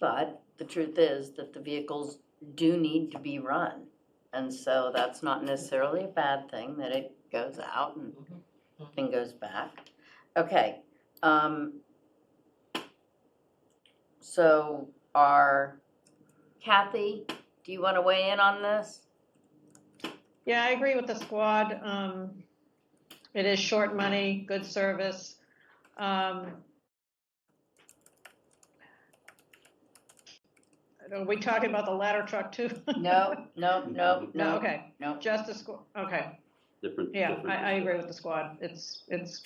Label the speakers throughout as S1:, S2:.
S1: But the truth is that the vehicles do need to be run. And so that's not necessarily a bad thing, that it goes out and then goes back. Okay, um, so are, Kathy, do you want to weigh in on this?
S2: Yeah, I agree with the squad. Um, it is short money, good service. Um, I don't- Are we talking about the ladder truck too?
S1: No, no, no,
S2: No,
S1: no,
S2: okay,
S1: no.
S2: just the squad, okay.
S3: Different.
S2: Yeah,
S3: different-
S2: I, I agree with the squad. It's, it's,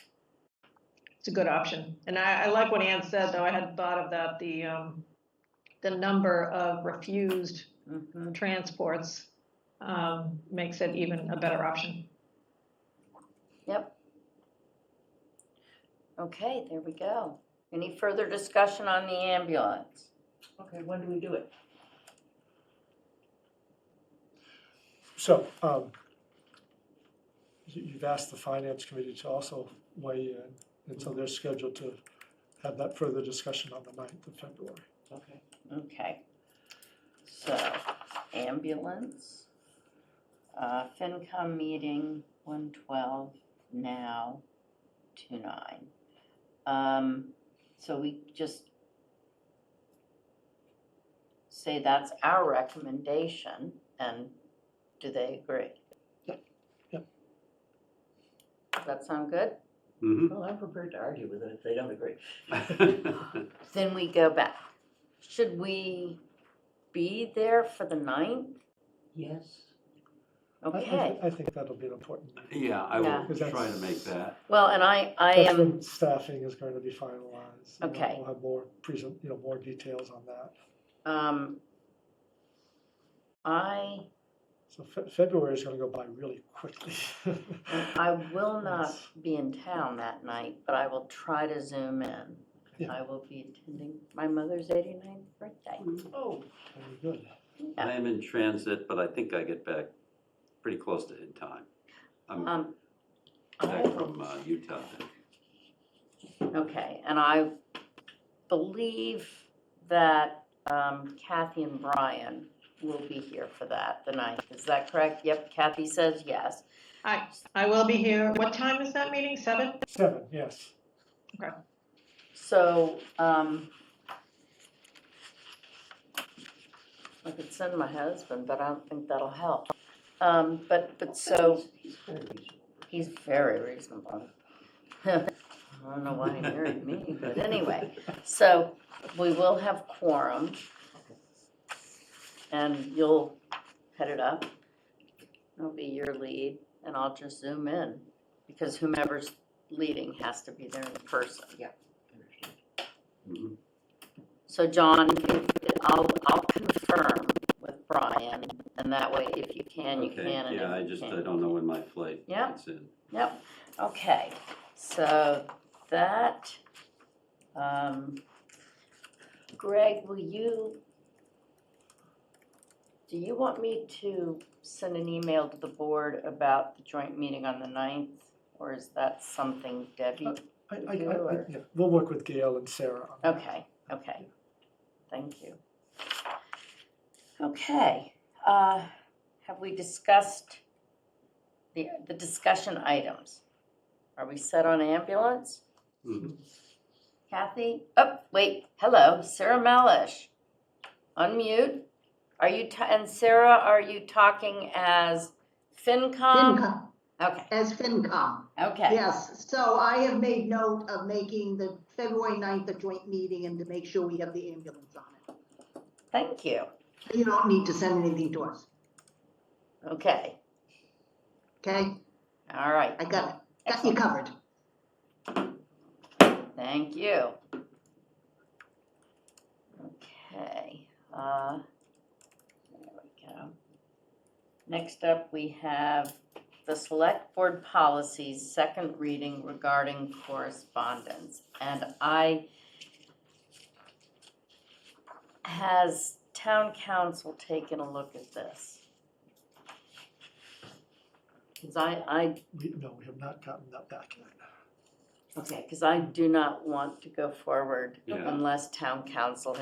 S2: it's a good option. And I, I like what Ann said, though. I hadn't thought of that, the, um, the number of refused
S1: Mhm.
S2: transports, um, makes it even a better option.
S1: Yep. Okay, there we go. Any further discussion on the ambulance?
S4: Okay, when do we do it?
S5: So, um, you- you've asked the finance committee to also weigh in, and so they're scheduled to have that further discussion on the 9th of February.
S4: Okay.
S1: Okay. So ambulance, uh, FinCom meeting, one twelve, now, two nine. Um, so we just say that's our recommendation and do they agree?
S5: Yep, yep.
S1: Does that sound good?
S3: Mhm.
S4: Well, I'm prepared to argue with them if they don't agree.
S1: Then we go back. Should we be there for the ninth?
S4: Yes.
S5: I- I thi-
S1: Okay,
S5: I think that'll be an important meeting.
S3: Yeah, I
S1: Yeah.
S3: will
S5: 'Cause
S3: try to
S5: that's-
S3: make that.
S1: well, and I, I
S5: That's
S1: am,
S5: when staffing is going to be finalized. and
S1: Okay.
S5: We'll have more present, you know, more details on that.
S1: um, I,
S5: So Fe- February is going to go by really quickly.
S1: I will not be in town that night, but I will try to zoom in.
S5: Yeah.
S1: I will be attending my mother's eighty-ninth birthday.
S4: Oh,
S5: Very good.
S3: I am in transit, but I think I get back pretty close to in time. I'm
S1: Um,
S3: back from uh, Utah. then.
S1: okay, and I believe that um, Kathy and Brian will be here for that the ninth. Is that correct? Yep, Kathy says yes.
S2: I, I will be here. What time is that meeting? Seven?
S5: Seven, yes.
S1: So, um, I could send my husband, but I don't think that'll help. Um, but, but so,
S4: he's very reasonable.
S1: he's very reasonable. I don't know why he married me, but anyway, so we will have quorum. And you'll head it up. It'll be your lead, and I'll just zoom in, because whomever's leading has to be there in person.
S3: Mhm.
S1: So John, I'll, I'll confirm with Brian, and that way, if you can, you
S3: Okay.
S1: can. and
S3: Yeah,
S1: if
S3: I
S1: you
S3: just, I
S1: can't,
S3: don't know when my flight
S1: Yeah.
S3: gets in.
S1: Yep, okay, so that, um, Greg, will you, do you want me to send an email to the board about the joint meeting on the ninth? Or is that something Debbie?
S5: I, I, I,
S1: Sure.
S5: yeah, we'll work with Gail and Sarah on that.
S1: Okay, okay, thank you. Okay, uh, have we discussed the, the discussion items? Are we set on ambulance?
S3: Mhm.
S1: Kathy, oh, wait, hello, Sarah Malish. Unmute. Are you, ta- and Sarah, are you talking as FinCom?
S6: FinCom,
S1: Okay,
S6: as FinCom,
S1: Um, okay,
S6: yes. So I have made note of making the February 9th a joint meeting and to make sure we have the ambulance on
S1: thank you,
S6: it. You don't need to send anything to us,
S1: okay,
S6: okay?
S1: all right.
S6: I got, got you covered.
S1: Thank you. Okay, uh, there we go. Next up, we have the select board policies, second reading regarding correspondence. And I, has town council taken a look at this? Cause I, I
S5: We, no, we have not gotten that back yet.
S1: Okay, because I do not want to go forward
S3: Yeah.
S1: unless town council